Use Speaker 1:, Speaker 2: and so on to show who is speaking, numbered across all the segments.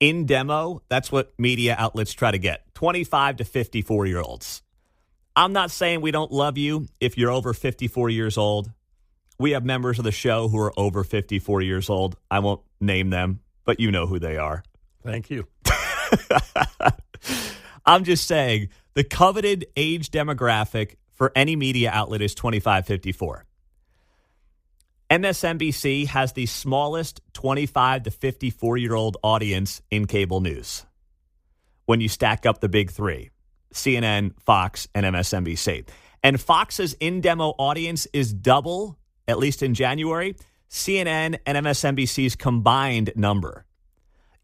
Speaker 1: in demo, that's what media outlets try to get 25 to 54 year olds. I'm not saying we don't love you if you're over 54 years old. We have members of the show who are over 54 years old. I won't name them, but you know who they are.
Speaker 2: Thank you.
Speaker 1: I'm just saying the coveted age demographic for any media outlet is 25 54. MSNBC has the smallest 25 to 54 year old audience in cable news when you stack up the big three CNN, Fox, and MSNBC. And Fox's in demo audience is double, at least in January, CNN and MSNBC's combined number.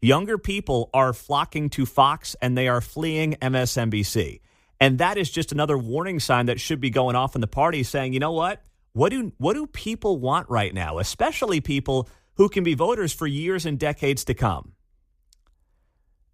Speaker 1: Younger people are flocking to Fox and they are fleeing MSNBC. And that is just another warning sign that should be going off in the party saying, you know what? What do what do people want right now, especially people who can be voters for years and decades to come?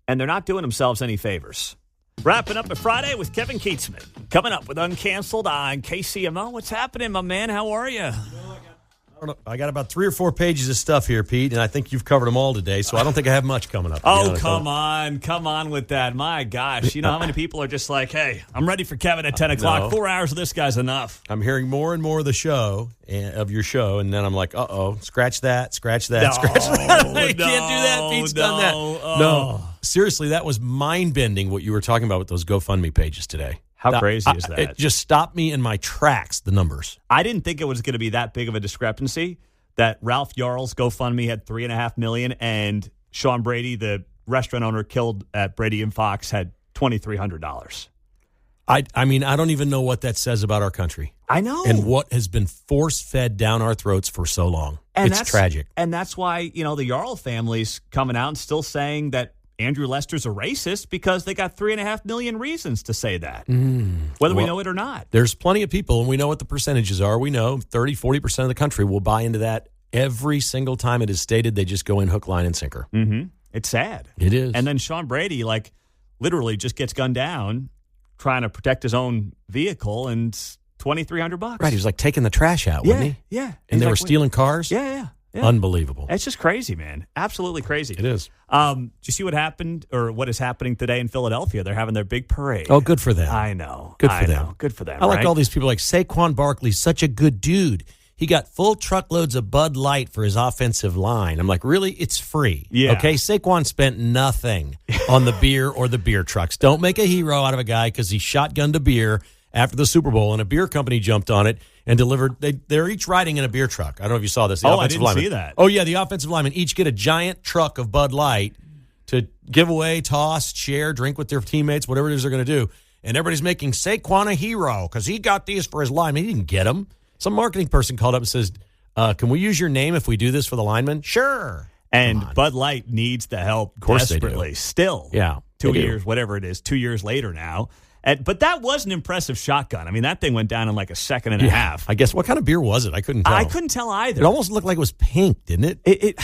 Speaker 1: And they're not doing themselves any favors. Wrapping up a Friday with Kevin Keatsman. Coming up with Uncanceled on KCMO. What's happening, my man? How are you?
Speaker 2: I don't know. I got about three or four pages of stuff here, Pete, and I think you've covered them all today. So I don't think I have much coming up. to be
Speaker 1: Oh,
Speaker 2: honest.
Speaker 1: come on. Come on with that. My gosh. You know how many people are just like, hey, I'm ready for Kevin at 10 o'clock.
Speaker 2: no.
Speaker 1: Four hours of this guy's enough.
Speaker 2: I'm hearing more and more of the show and, of your show, and then I'm like, uh oh, scratch that, scratch that, scratch that. I can't do that.
Speaker 1: no,
Speaker 2: Pete's done that.
Speaker 1: no, uh.
Speaker 2: No, seriously, that was mind bending what you were talking about with those GoFundMe pages today.
Speaker 1: How
Speaker 2: That-
Speaker 1: crazy
Speaker 2: I-
Speaker 1: is that?
Speaker 2: It just stopped me in my tracks. The numbers.
Speaker 1: I didn't think it was going to be that big of a discrepancy that Ralph Yarl's GoFundMe had three and a half million and Sean Brady, the restaurant owner killed at Brady and Fox, had twenty three hundred dollars.
Speaker 2: I, I mean, I don't even know what that says about our country
Speaker 1: I know.
Speaker 2: and what has been force fed down our throats for so long. it's
Speaker 1: that's-
Speaker 2: tragic.
Speaker 1: And that's why, you know, the Yarl family's coming out and still saying that Andrew Lester's a racist because they got three and a half million reasons to say that. whether we
Speaker 2: Mm. Well-
Speaker 1: know it or not.
Speaker 2: There's plenty of people, and we know what the percentages are. We know 30, 40% of the country will buy into that every single time it is stated. They just go in hook, line, and sinker.
Speaker 1: Mm-hmm. It's sad.
Speaker 2: It is.
Speaker 1: And then Sean Brady, like, literally just gets gunned down trying to protect his own vehicle and twenty three hundred bucks.
Speaker 2: right, he was like taking the trash out,
Speaker 1: yeah,
Speaker 2: wasn't he?
Speaker 1: yeah.
Speaker 2: And
Speaker 1: He's like,
Speaker 2: they were
Speaker 1: wait-
Speaker 2: stealing cars?
Speaker 1: Yeah, yeah, yeah.
Speaker 2: Unbelievable.
Speaker 1: it's just crazy, man. Absolutely crazy.
Speaker 2: It is.
Speaker 1: Um, do you see what happened or what is happening today in Philadelphia? They're having their big parade.
Speaker 2: Oh, good for them.
Speaker 1: I know.
Speaker 2: Good for
Speaker 1: I
Speaker 2: them.
Speaker 1: know. Good for them.
Speaker 2: I like
Speaker 1: right?
Speaker 2: all these people like Saquon Barkley's such a good dude. He got full truckloads of Bud Light for his offensive line. I'm like, really? It's free.
Speaker 1: Yeah.
Speaker 2: Okay. Saquon spent nothing on the beer or the beer trucks. Don't make a hero out of a guy because he shotgunned a beer after the Super Bowl and a beer company jumped on it and delivered. They, they're each riding in a beer truck. I don't know if you saw this. The
Speaker 1: Oh, I
Speaker 2: offensive
Speaker 1: didn't see
Speaker 2: linemen.
Speaker 1: that.
Speaker 2: Oh, yeah. The offensive linemen each get a giant truck of Bud Light to give away, toss, share, drink with their teammates, whatever it is they're going to do. And everybody's making Saquon a hero because he got these for his lineman. He didn't get them. Some marketing person called up and says, uh, Can we use your name if we do this for the lineman? Sure.
Speaker 1: And Bud Light needs the help
Speaker 2: course they do.
Speaker 1: desperately. Still,
Speaker 2: Yeah,
Speaker 1: two
Speaker 2: they do.
Speaker 1: years, whatever it is, two years later now. And, but that was an impressive shotgun. I mean, that thing went down in like a second and a half.
Speaker 2: I guess. What kind of beer was it? I couldn't tell.
Speaker 1: I couldn't tell
Speaker 2: It
Speaker 1: either.
Speaker 2: almost looked like it was pink, didn't it?
Speaker 1: It, it,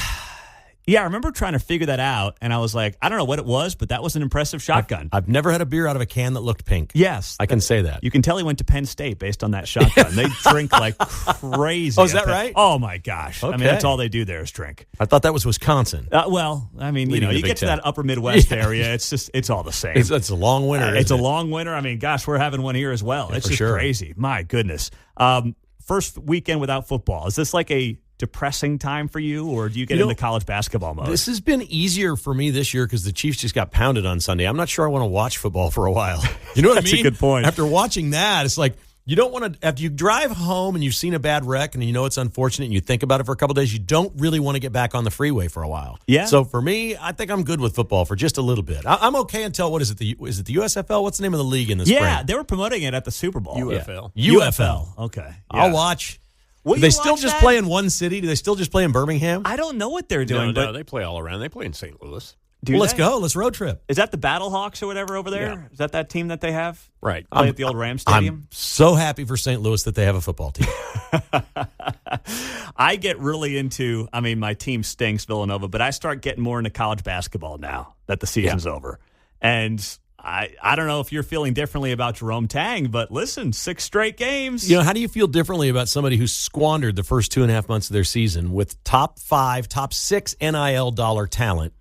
Speaker 1: yeah, I remember trying to figure that out, and I was like, I don't know what it was, but that was an impressive shotgun.
Speaker 2: I've never had a beer out of a can that looked pink.
Speaker 1: yes,
Speaker 2: I can say that.
Speaker 1: You can tell he went to Penn State based on that shotgun. they drink like crazy.
Speaker 2: Oh, is
Speaker 1: at
Speaker 2: that
Speaker 1: Penn-
Speaker 2: right?
Speaker 1: Oh my gosh! I mean,
Speaker 2: Okay.
Speaker 1: that's all they do there is drink.
Speaker 2: I thought that was Wisconsin.
Speaker 1: Uh, well, I mean, you
Speaker 2: Leading
Speaker 1: know,
Speaker 2: the
Speaker 1: you
Speaker 2: Big
Speaker 1: get to
Speaker 2: Ten.
Speaker 1: that upper Midwest area. It's just, it's all the same.
Speaker 2: It's, it's a long winter.
Speaker 1: Uh,
Speaker 2: isn't
Speaker 1: it's a
Speaker 2: it?
Speaker 1: long winter. I mean, gosh, we're having one here as well. it's
Speaker 2: for
Speaker 1: just
Speaker 2: sure.
Speaker 1: crazy. My goodness. Um, first weekend without football. Is this like a depressing time for you, or do you get
Speaker 2: You know,
Speaker 1: into college basketball mode?
Speaker 2: This has been easier for me this year because the Chiefs just got pounded on Sunday. I'm not sure I want to watch football for a while. You know what
Speaker 1: That's
Speaker 2: I
Speaker 1: a
Speaker 2: mean?
Speaker 1: good point.
Speaker 2: After watching that, it's like you don't want to. After you drive home and you've seen a bad wreck and you know it's unfortunate and you think about it for a couple days, you don't really want to get back on the freeway for a while.
Speaker 1: Yeah.
Speaker 2: So for me, I think I'm good with football for just a little bit. I, I'm okay until what is it? The is it the USFL? What's the name of the league in the
Speaker 1: yeah,
Speaker 2: spring?
Speaker 1: they were promoting it at the Super Bowl.
Speaker 2: UFL.
Speaker 1: UFL. Okay.
Speaker 2: I'll
Speaker 1: Yeah.
Speaker 2: watch.
Speaker 1: Will
Speaker 2: Do they
Speaker 1: you
Speaker 2: still
Speaker 1: watch
Speaker 2: just
Speaker 1: that?
Speaker 2: play in one city? Do they still just play in Birmingham?
Speaker 1: I don't know what they're
Speaker 3: No,
Speaker 1: doing,
Speaker 3: no,
Speaker 1: but
Speaker 3: they play all around. They play in St. Louis.
Speaker 1: do
Speaker 2: well, let's
Speaker 1: they?
Speaker 2: go. Let's road trip.
Speaker 1: Is that the Battle Hawks or whatever over there? Is
Speaker 3: Yeah.
Speaker 1: that that team that they have?
Speaker 3: Right.
Speaker 1: Play at the old Rams Stadium?
Speaker 2: I'm so happy for St. Louis that they have a football team.
Speaker 1: I get really into, I mean, my team stinks, Villanova, but I start getting more into college basketball now that the season's over. And I, I don't know if you're feeling differently about Jerome Tang, but listen, six straight games.
Speaker 2: you know, how do you feel differently about somebody who squandered the first two and a half months of their season with top five, top six NIL dollar talent